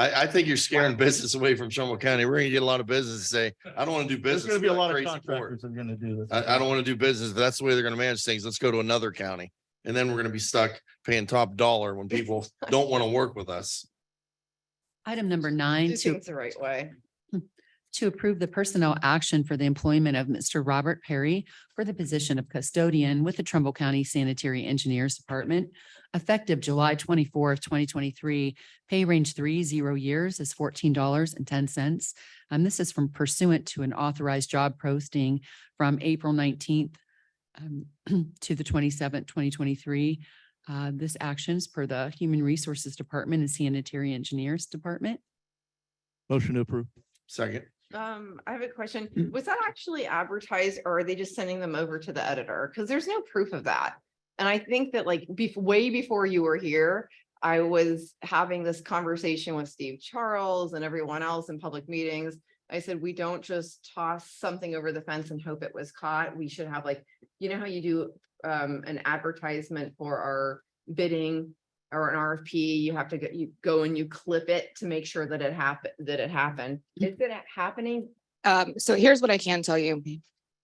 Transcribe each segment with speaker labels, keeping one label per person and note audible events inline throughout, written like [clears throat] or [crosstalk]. Speaker 1: I, I think you're scaring business away from Trumbull County. We're gonna get a lot of business to
Speaker 2: [laughs]
Speaker 1: say, I don't want to do
Speaker 2: There's
Speaker 1: business.
Speaker 2: gonna be a
Speaker 1: with that
Speaker 2: lot of
Speaker 1: crazy court.
Speaker 2: contractors that are gonna do this.
Speaker 1: I, I don't want to do business. That's the way they're gonna manage things. Let's go to another county. And then we're gonna be stuck paying top dollar when
Speaker 2: [laughs]
Speaker 1: people don't want to work with us.
Speaker 3: Item number nine,
Speaker 4: Do
Speaker 3: to,
Speaker 4: things the right way.
Speaker 3: to approve the personnel action for the employment of Mr. Robert Perry for the position of custodian with the Trumbull County Sanitary Engineers Department, effective July twenty-fourth, twenty twenty-three, pay range three, zero years is fourteen dollars and ten cents. And this is from pursuant to an authorized job posting from April nineteenth um, [clears throat] to the twenty-seventh, twenty twenty-three. Uh, This action is per the Human Resources Department and Sanitary Engineers Department.
Speaker 2: Motion to approve.
Speaker 1: Second,
Speaker 4: Um, I have a question. Was that actually advertised or are they just sending them over to the editor? Because there's no proof of that. And I think that like bef- way before you were here, I was having this conversation with Steve Charles and everyone else in public meetings. I said, we don't just toss something over the fence and hope it was caught. We should have like, you know how you do um an advertisement for our bidding or an RFP, you have to get, you go and you clip it to make sure that it happened, that it happened. Is it happening?
Speaker 5: Um, so here's what I can tell you.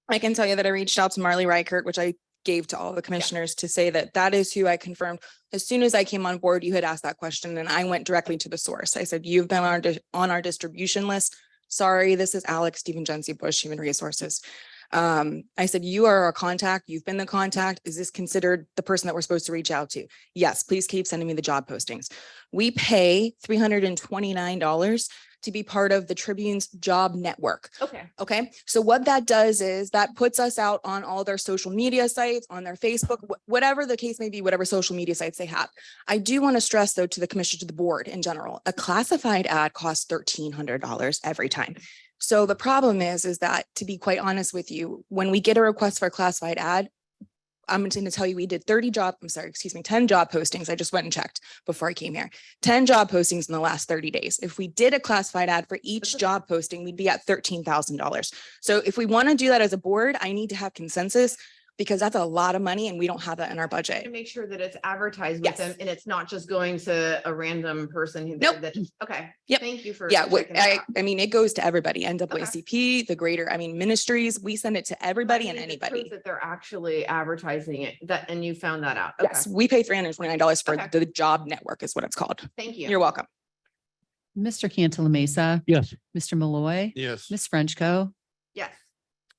Speaker 5: I can tell you that I reached out to Marley Reichert, which I gave to all the commissioners to say that that is who I confirmed. As soon as I came on board, you had asked that question and I went directly to the source. I said, you've been on our, dis- on our distribution list. Sorry, this is Alex Stephen Jency Bush, Human Resources. Um, I said, you are our contact. You've been the contact. Is this considered the person that we're supposed to reach out to? Yes, please keep sending me the job postings. We pay three hundred and twenty-nine dollars to be part of the Tribune's job network.
Speaker 4: Okay.
Speaker 5: Okay, so what that does is that puts us out on all their social media sites, on their Facebook, wh- whatever the case may be, whatever social media sites they have. I do want to stress though to the commission, to the board in general, a classified ad costs thirteen hundred dollars every time. So the problem is, is that to be quite honest with you, when we get a request for a classified ad, I'm going to tell you, we did thirty job, I'm sorry, excuse me, ten job postings. I just went and checked before I came here. Ten job postings in the last thirty days. If we did a classified ad for each job posting, we'd be at thirteen thousand dollars. So if we want to do that as a board, I need to have consensus because that's a lot of money and we don't have that in our
Speaker 4: To
Speaker 5: budget.
Speaker 4: make sure that it's advertised with them
Speaker 5: Yes.
Speaker 4: and it's not just going to a random person. who-
Speaker 5: Nope.
Speaker 4: that- Okay.
Speaker 5: Yep.
Speaker 4: Thank you for.
Speaker 5: Yeah, what,
Speaker 4: checking that
Speaker 5: I,
Speaker 4: out.
Speaker 5: I mean, it goes to everybody,
Speaker 4: Okay.
Speaker 5: NAACP, the greater, I mean, ministries, we send it to everybody
Speaker 4: You
Speaker 5: and
Speaker 4: need to prove
Speaker 5: anybody.
Speaker 4: That they're actually advertising it, that, and you found that out. Okay.
Speaker 5: Yes, we pay three hundred and twenty-nine dollars for
Speaker 4: Okay.
Speaker 5: the job network is what it's called.
Speaker 4: Thank you.
Speaker 5: You're welcome.
Speaker 3: Mr. Cantala Mesa,
Speaker 2: Yes.
Speaker 3: Mr. Malloy,
Speaker 1: yes,
Speaker 3: Ms. Frenchco.
Speaker 4: Yes.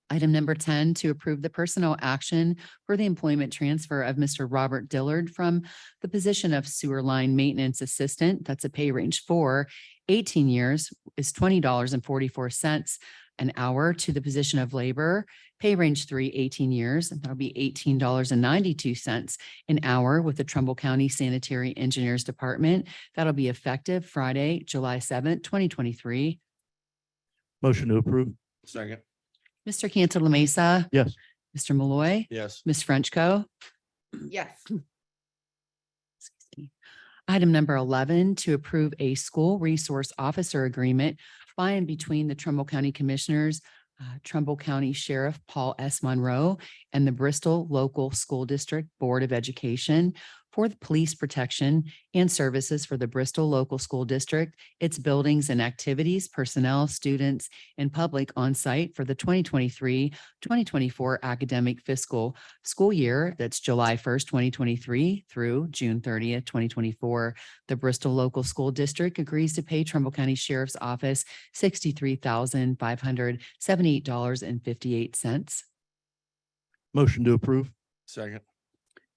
Speaker 3: Item number ten, to approve the personnel action for the employment transfer of Mr. Robert Dillard from the position of sewer line maintenance assistant, that's a pay range four, 18 years is twenty dollars and forty-four cents an hour to the position of labor, pay range three, 18 years, and that'll be eighteen dollars and ninety-two cents an hour with the Trumbull County Sanitary Engineers Department. That'll be effective Friday, July seventh, twenty twenty-three.
Speaker 2: Motion to approve.
Speaker 1: second,
Speaker 3: Mr. Cantala Mesa.
Speaker 2: Yes.
Speaker 3: Mr. Malloy.
Speaker 1: yes,
Speaker 3: Ms. Frenchco.
Speaker 4: Yes.
Speaker 3: Excuse me. Item number eleven, to approve a school resource officer agreement by and between the Trumbull County Commissioners, uh, Trumbull County Sheriff Paul S. Monroe, and the Bristol Local School District Board of Education for the police protection and services for the Bristol Local School District, its buildings and activities, personnel, students, and public on site for the 2023-2024 academic fiscal school year that's July 1st, 2023 through June 30th, 2024. The Bristol Local School District agrees to pay Trumbull County Sheriff's Office $63,578.58.
Speaker 2: Motion to approve.
Speaker 1: second,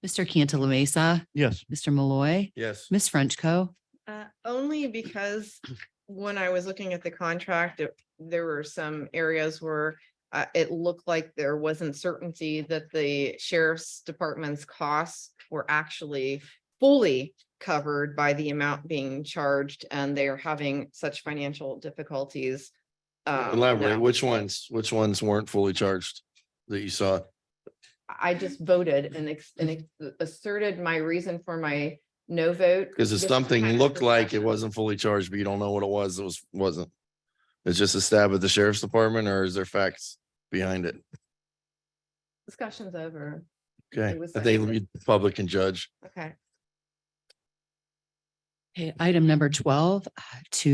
Speaker 3: Mr. Cantala Mesa,
Speaker 2: Yes.
Speaker 3: Mr. Malloy,
Speaker 1: yes.
Speaker 3: Ms. Frenchco.
Speaker 4: Uh, only because when I was looking at the contract, it- there were some areas where uh, it looked like there wasn't certainty that the sheriff's department's costs were actually fully covered by the amount being charged, and they are having such financial difficulties. um,
Speaker 1: Elaborate,
Speaker 4: now.
Speaker 1: which ones, which ones weren't fully charged that you saw?
Speaker 4: I just voted and ex- and ex- asserted my reason for my no vote.
Speaker 1: Because if
Speaker 4: This
Speaker 1: something
Speaker 4: kind of
Speaker 1: looked like it
Speaker 4: discussion.
Speaker 1: wasn't fully charged, but you don't know what it was, it was, wasn't. It's just a stab at the sheriff's department or is there facts behind it?
Speaker 4: Discussion's over.
Speaker 1: Okay,
Speaker 4: It was
Speaker 1: I think
Speaker 4: like-
Speaker 1: the public can judge.
Speaker 4: Okay.
Speaker 3: Okay, item number 12, uh, to